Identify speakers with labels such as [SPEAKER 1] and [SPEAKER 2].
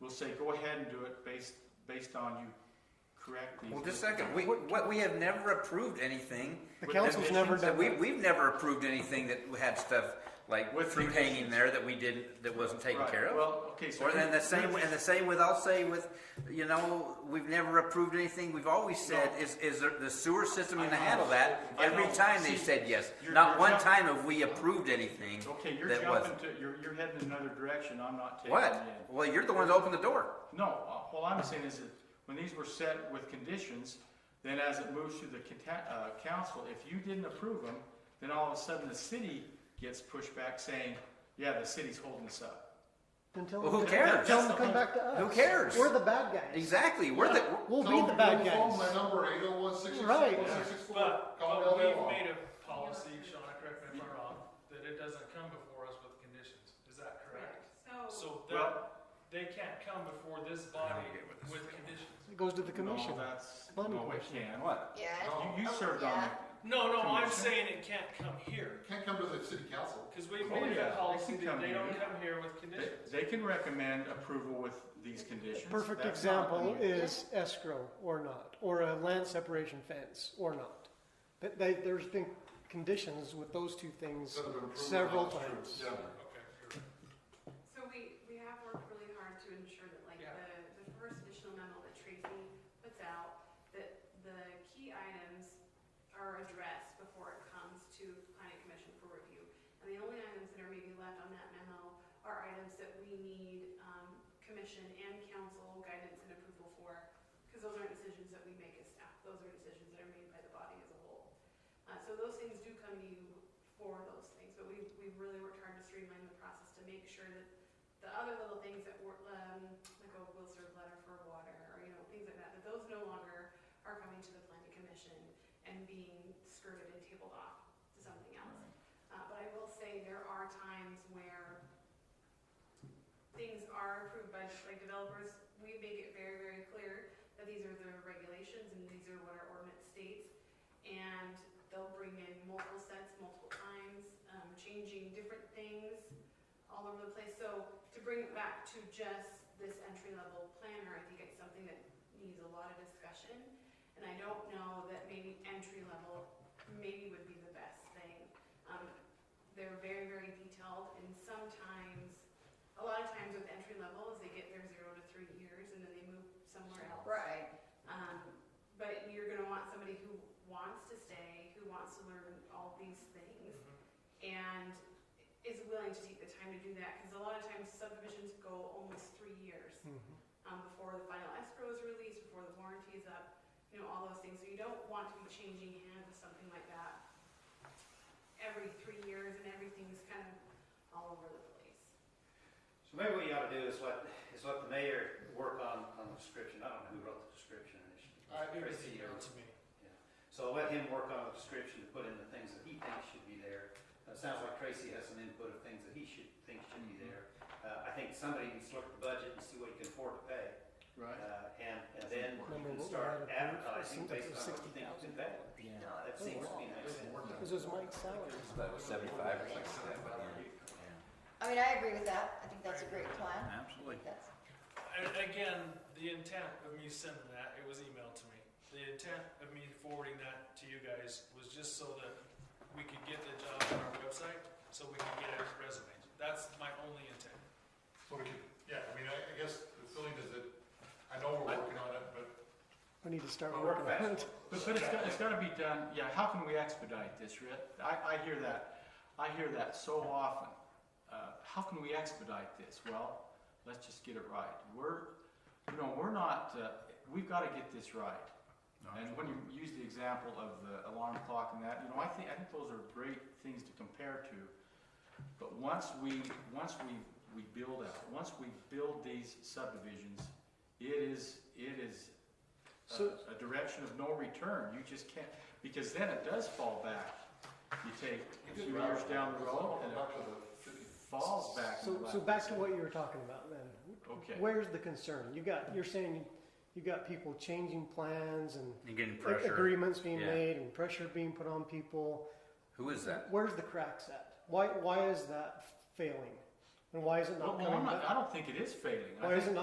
[SPEAKER 1] we'll say, go ahead and do it based, based on you correct these.
[SPEAKER 2] Well, just a second, we, what, we have never approved anything,
[SPEAKER 3] The
[SPEAKER 1] With
[SPEAKER 3] council's never
[SPEAKER 1] additions
[SPEAKER 2] that
[SPEAKER 3] done
[SPEAKER 2] we,
[SPEAKER 3] that.
[SPEAKER 2] we've never approved anything that had stuff like
[SPEAKER 1] With
[SPEAKER 2] fruit hanging
[SPEAKER 1] revisions.
[SPEAKER 2] there that we didn't, that wasn't taken
[SPEAKER 1] Right,
[SPEAKER 2] care of.
[SPEAKER 1] Well, okay, so.
[SPEAKER 2] Or and the
[SPEAKER 1] here's-
[SPEAKER 2] same, and the same with, I'll say with, you know, we've never approved anything, we've always said, is, is there- the sewer system
[SPEAKER 1] I
[SPEAKER 2] gonna
[SPEAKER 1] know.
[SPEAKER 2] handle that?
[SPEAKER 1] I
[SPEAKER 2] Every
[SPEAKER 1] know.
[SPEAKER 2] time they
[SPEAKER 1] See,
[SPEAKER 2] said yes,
[SPEAKER 1] you're-
[SPEAKER 2] not
[SPEAKER 1] you're
[SPEAKER 2] one
[SPEAKER 1] jumping-
[SPEAKER 2] time have we approved anything
[SPEAKER 1] Okay, you're
[SPEAKER 2] that
[SPEAKER 1] jumping
[SPEAKER 2] wasn't.
[SPEAKER 1] to, you're, you're heading in another direction, I'm not taking it
[SPEAKER 2] What?
[SPEAKER 1] in.
[SPEAKER 2] Well, you're the one that opened the door.
[SPEAKER 1] No, uh, all I'm saying is that when these were set with conditions, then as it moves through the conta- uh, council, if you didn't approve them, then all of a sudden the city gets pushed back saying, yeah, the city's holding us up.
[SPEAKER 3] Then tell
[SPEAKER 2] Well,
[SPEAKER 3] them
[SPEAKER 2] who
[SPEAKER 3] to-
[SPEAKER 2] cares?
[SPEAKER 3] Tell them to come back to us.
[SPEAKER 2] Who cares?
[SPEAKER 3] We're the bad guys.
[SPEAKER 2] Exactly, we're the,
[SPEAKER 3] We'll
[SPEAKER 4] Tell
[SPEAKER 3] be the
[SPEAKER 4] them
[SPEAKER 3] bad
[SPEAKER 4] to phone
[SPEAKER 3] guys.
[SPEAKER 4] My number eight oh one six six
[SPEAKER 3] Right.
[SPEAKER 4] one six six four.
[SPEAKER 5] But,
[SPEAKER 4] Call
[SPEAKER 5] but
[SPEAKER 4] Del
[SPEAKER 5] we've
[SPEAKER 4] Mar.
[SPEAKER 5] made a policy, Shauna, correct me if I'm wrong, that it doesn't come before us with conditions, is that correct?
[SPEAKER 6] So,
[SPEAKER 5] So
[SPEAKER 1] Well-
[SPEAKER 5] that, they can't come before this body
[SPEAKER 2] get what this
[SPEAKER 5] with
[SPEAKER 2] is.
[SPEAKER 5] conditions.
[SPEAKER 3] It goes to the
[SPEAKER 1] No,
[SPEAKER 3] commission.
[SPEAKER 1] that's, no,
[SPEAKER 3] Money
[SPEAKER 1] it
[SPEAKER 3] question.
[SPEAKER 1] can't.
[SPEAKER 2] what?
[SPEAKER 6] yeah,
[SPEAKER 4] No.
[SPEAKER 1] You, you
[SPEAKER 6] Oh,
[SPEAKER 1] served on
[SPEAKER 6] yeah.
[SPEAKER 1] it.
[SPEAKER 5] No, no, I'm
[SPEAKER 1] Condition?
[SPEAKER 5] saying it can't come here,
[SPEAKER 4] Can't come to the city council.
[SPEAKER 5] cause we've
[SPEAKER 1] Oh,
[SPEAKER 5] made
[SPEAKER 1] yeah,
[SPEAKER 5] a
[SPEAKER 1] they
[SPEAKER 5] policy
[SPEAKER 1] can
[SPEAKER 5] that
[SPEAKER 1] come
[SPEAKER 5] they don't
[SPEAKER 1] here.
[SPEAKER 5] come here
[SPEAKER 1] They,
[SPEAKER 5] with conditions.
[SPEAKER 1] they can recommend approval with these conditions.
[SPEAKER 3] Perfect
[SPEAKER 1] That's not
[SPEAKER 3] example
[SPEAKER 1] the-
[SPEAKER 3] is escrow or not, or a land separation fence or not. But they, there's been conditions with those two things
[SPEAKER 4] Instead of improving
[SPEAKER 3] several
[SPEAKER 4] that,
[SPEAKER 3] times.
[SPEAKER 4] it's true. Yeah.
[SPEAKER 5] Okay, you're right.
[SPEAKER 6] so we, we have worked really hard to ensure that like
[SPEAKER 5] Yeah.
[SPEAKER 6] the, the first additional memo that Tracy puts out, that the key items are addressed before it comes to planning commission for review. And the only items that are maybe left on that memo are items that we need, um, commission and council guidance and approval for, because those aren't decisions that we make as staff, those are decisions that are made by the body as a whole. Uh, so those things do come to you for those things, but we, we've really worked hard to streamline the process to make sure that the other little things that were, um, like a will serve letter for water, or, you know, things like that, that those no longer are coming to the planning commission and being skirted and tabled off to something else. Uh, but I will say there are times where things are approved by, like developers, we make it very, very clear that these are the regulations and these are what our ordinance states. And they'll bring in multiple sets, multiple times, um, changing different things all over the place. So to bring it back to just this entry level planner, I think it's something that needs a lot of discussion. And I don't know that maybe entry level maybe would be the best thing. Um, they're very, very detailed and sometimes, a lot of times with entry level is they get their zero to three years and then they move somewhere else.
[SPEAKER 7] Right.
[SPEAKER 6] Um, but you're gonna want somebody who wants to stay, who wants to learn all these things, and is willing to take the time to do that, because a lot of times subdivisions go almost three years, um, before the final escrow is released, before the warranty is up, you know, all those things, so you don't want to be changing hands with something like that every three years, and everything's kind of all over the place.
[SPEAKER 8] So maybe what you ought to do is let, is let the mayor work on, on the description. I don't know who wrote the description. It should be
[SPEAKER 5] I agree with
[SPEAKER 8] Tracy
[SPEAKER 5] you,
[SPEAKER 8] or-
[SPEAKER 5] it's me.
[SPEAKER 8] yeah. So let him work on the description to put in the things that he thinks should be there. Uh, It sounds like Tracy has some input of things that he should, think should be there. Uh, I think somebody needs to look at the budget and see what he can afford to pay.
[SPEAKER 1] Right.
[SPEAKER 8] Uh, and, and then you
[SPEAKER 3] Remember what
[SPEAKER 8] can
[SPEAKER 3] we
[SPEAKER 8] start
[SPEAKER 3] had approved?
[SPEAKER 8] advertising
[SPEAKER 3] It seems like
[SPEAKER 8] based
[SPEAKER 3] it was
[SPEAKER 8] on what you think you can pay. That seems to be nice.
[SPEAKER 3] This is Mike's salary.
[SPEAKER 2] That was seventy-five or something like that, but
[SPEAKER 7] I mean, I agree with that. I think that's a great
[SPEAKER 2] yeah,
[SPEAKER 7] plan.
[SPEAKER 2] absolutely.
[SPEAKER 7] That's,
[SPEAKER 5] And again, the intent of me sending that, it was emailed to me. The intent of me forwarding that to you guys was just so that we could get the job on our website, so we could get resumes. That's my only intent.
[SPEAKER 4] So we could, yeah, I mean, I, I guess the feeling is that, I know we're working on it, but
[SPEAKER 3] We need to start
[SPEAKER 2] Oh,
[SPEAKER 8] Well,
[SPEAKER 3] working
[SPEAKER 8] we're
[SPEAKER 3] on it.
[SPEAKER 1] But, but it's got, it's gotta be done, yeah, how can we expedite this, Rick? I, I hear that, I hear that so often. Uh, how can we expedite this? Well, let's just get it right. We're, you know, we're not, uh, we've gotta get this right. And when you use the example of the alarm clock and that, you know, I think, I think those are great things to compare to. But once we, once we, we build out, once we build these subdivisions, it is, it is a
[SPEAKER 3] So-
[SPEAKER 1] a direction of no return. You just can't, because then it does fall back. You take
[SPEAKER 4] we
[SPEAKER 1] two
[SPEAKER 4] did.
[SPEAKER 1] years down the road and
[SPEAKER 4] Back
[SPEAKER 1] it
[SPEAKER 4] to the city.
[SPEAKER 1] falls back.
[SPEAKER 3] So,
[SPEAKER 1] to
[SPEAKER 3] so
[SPEAKER 1] the
[SPEAKER 3] back
[SPEAKER 1] left.
[SPEAKER 3] to what you were talking about then.
[SPEAKER 1] Okay.
[SPEAKER 3] Where's the concern? You got, you're saying you got people changing plans and
[SPEAKER 2] You're getting
[SPEAKER 3] a-
[SPEAKER 2] pressure.
[SPEAKER 3] agreements being
[SPEAKER 2] Yeah.
[SPEAKER 3] made and pressure being put on people.
[SPEAKER 2] Who is that?
[SPEAKER 3] Where's the cracks at? Why, why is that failing? And why is it
[SPEAKER 1] Well,
[SPEAKER 3] not
[SPEAKER 1] well, I'm
[SPEAKER 3] coming
[SPEAKER 1] not,
[SPEAKER 3] back?
[SPEAKER 1] I don't think it is failing. I
[SPEAKER 3] Why
[SPEAKER 1] think-
[SPEAKER 3] is it not